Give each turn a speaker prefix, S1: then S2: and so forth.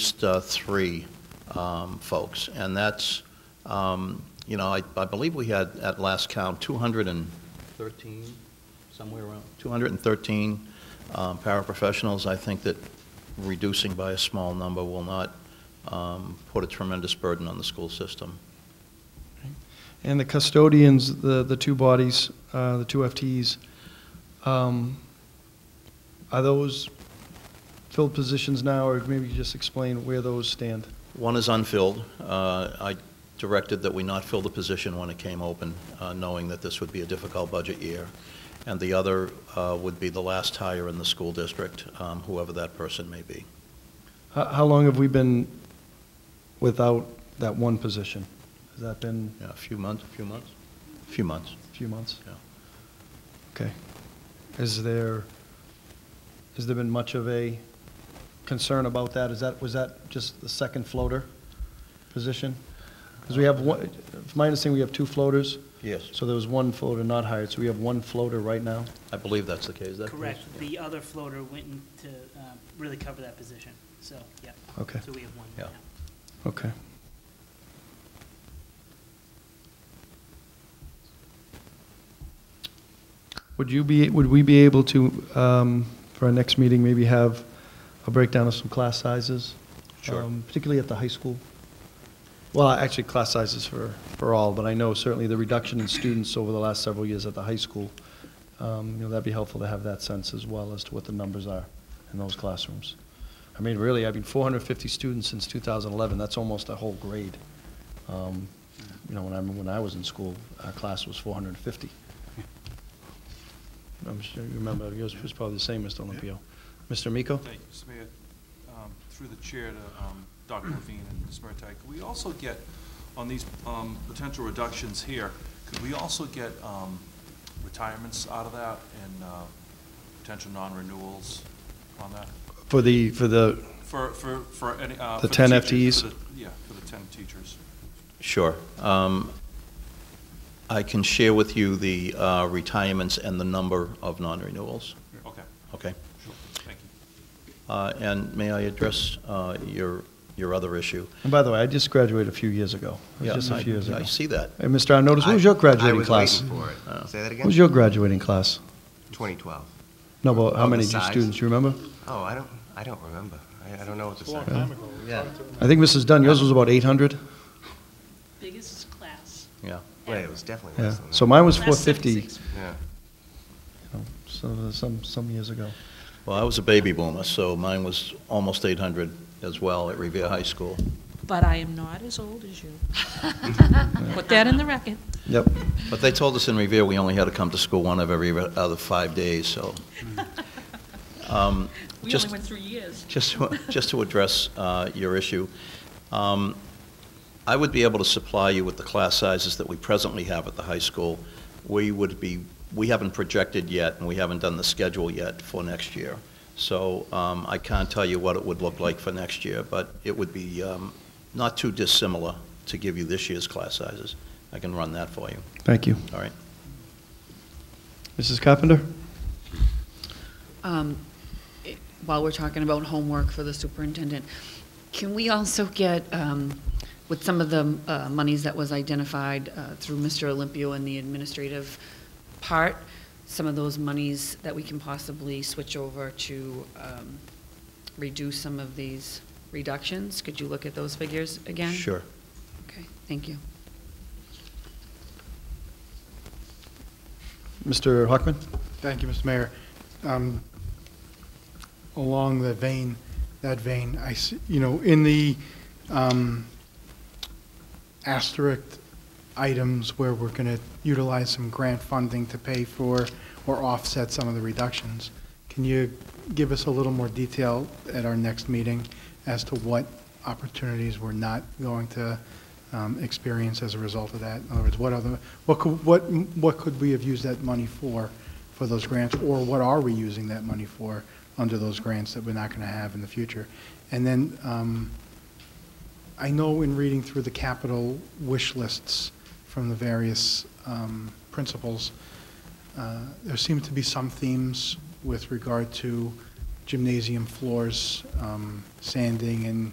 S1: least uh, three um, folks, and that's, um, you know, I I believe we had, at last count, 213, somewhere around, 213 um, paraprofessionals. I think that reducing by a small number will not um, put a tremendous burden on the school system.
S2: And the custodians, the, the two bodies, uh, the two FTEs, um, are those filled positions now, or maybe you just explain where those stand?
S1: One is unfilled. Uh, I directed that we not fill the position when it came open, uh, knowing that this would be a difficult budget year. And the other uh, would be the last hire in the school district, um, whoever that person may be.
S2: How, how long have we been without that one position? Has that been
S1: Yeah, A few months, a few months? A few months.
S2: a few months?
S1: Yeah.
S2: Okay. Is there, has there been much of a concern about that? Is that, was that just the second floater position? Because we have one, from my understanding, we have two floaters.
S1: Yes.
S2: So there was one floater not hired, so we have one floater right now?
S1: I believe that's the case. Is that
S3: Correct.
S1: correct?
S3: The other floater went in to um, really cover that position, so, yeah.
S2: Okay.
S3: So we have one
S1: Yeah.
S3: now.
S2: Okay. Would you be, would we be able to, um, for our next meeting, maybe have a breakdown of some class sizes?
S1: Sure.
S2: um, Particularly at the high school? Well, actually, class sizes for, for all, but I know certainly the reduction in students over the last several years at the high school, um, you know, that'd be helpful to have that sense as well as to what the numbers are in those classrooms. I mean, really, I mean, 450 students since 2011, that's almost a whole grade. Um, You know, when I, when I was in school, our class was 450. I'm sure you remember, yours was probably the same, Mr. Olympio. Mr. Miko?
S4: Thank you, Mr. Mayor. Um, Through the chair to um, Dr. Levine and Ms. Murtagh, could we also get, on these um, potential reductions here, could we also get um, retirements out of that and uh, potential non-renewals on that?
S2: For the, for the,
S4: For, for, for any, uh,
S2: The
S4: for
S2: 10
S4: teachers, for
S2: FTEs?
S4: the- Yeah, for the 10 teachers.
S1: Sure. Um, I can share with you the uh, retirements and the number of non-renewals,
S4: Okay,
S1: okay?
S4: sure, thank you.
S1: Uh, And may I address uh, your, your other issue?
S2: and by the way, I just graduated a few years ago. It was
S1: Yeah,
S2: just a
S1: I-
S2: few years ago.
S1: I see that. Uh,
S2: Hey, Mr. Arnottis, what was your graduating class? Oh.
S5: I was waiting for it. Say that
S2: What
S5: again?
S2: was your graduating class?
S5: 2012.
S2: No, but how
S5: Oh, the
S2: many
S5: size?
S2: students, you remember?
S5: Oh, I don't, I don't remember. I, I don't know what to say. Yeah.
S2: I think Mrs. Dunn, yours was about 800?
S6: biggest class.
S1: Yeah.
S5: Wait, it was definitely
S2: Yeah,
S5: less than that.
S2: so mine was
S6: Class seven,
S2: 450,
S6: six.
S5: Yeah.
S2: you know, so some, some years ago.
S1: Well, I was a baby boomer, so mine was almost 800 as well at Revere High School.
S6: But I am not as old as you. Put that in the record.
S2: Yep.
S1: But they told us in Revere, we only had to come to school one of every other five days, so. Um,
S6: We
S1: Just-
S6: only went three years.
S1: Just, to- just to address uh, your issue, um, I would be able to supply you with the class sizes that we presently have at the high school. We would be, we haven't projected yet, and we haven't done the schedule yet for next year. So um, I can't tell you what it would look like for next year, but it would be um, not too dissimilar to give you this year's class sizes. I can run that for you,
S2: Thank you.
S1: all right?
S2: Mrs. Carpenter?
S7: Um, it- While we're talking about homework for the superintendent, can we also get, um, with some of the uh, monies that was identified uh, through Mr. Olympio and the administrative part, some of those monies that we can possibly switch over to um, reduce some of these reductions? Could you look at those figures again?
S1: Sure.
S7: Okay, thank you.
S2: Mr. Hockman?
S8: Thank you, Mr. Mayor. Um, Along the vein, that vein, I, s- you know, in the um, asterisk items where we're going to utilize some grant funding to pay for or offset some of the reductions, can you give us a little more detail at our next meeting as to what opportunities we're not going to um, experience as a result of that? In other words, what other, what could, what, what could we have used that money for, for those grants? Or what are we using that money for under those grants that we're not going to have in the future? And then, um, I know in reading through the capital wish lists from the various um, principals, uh, there seem to be some themes with regard to gymnasium floors, um, sanding, and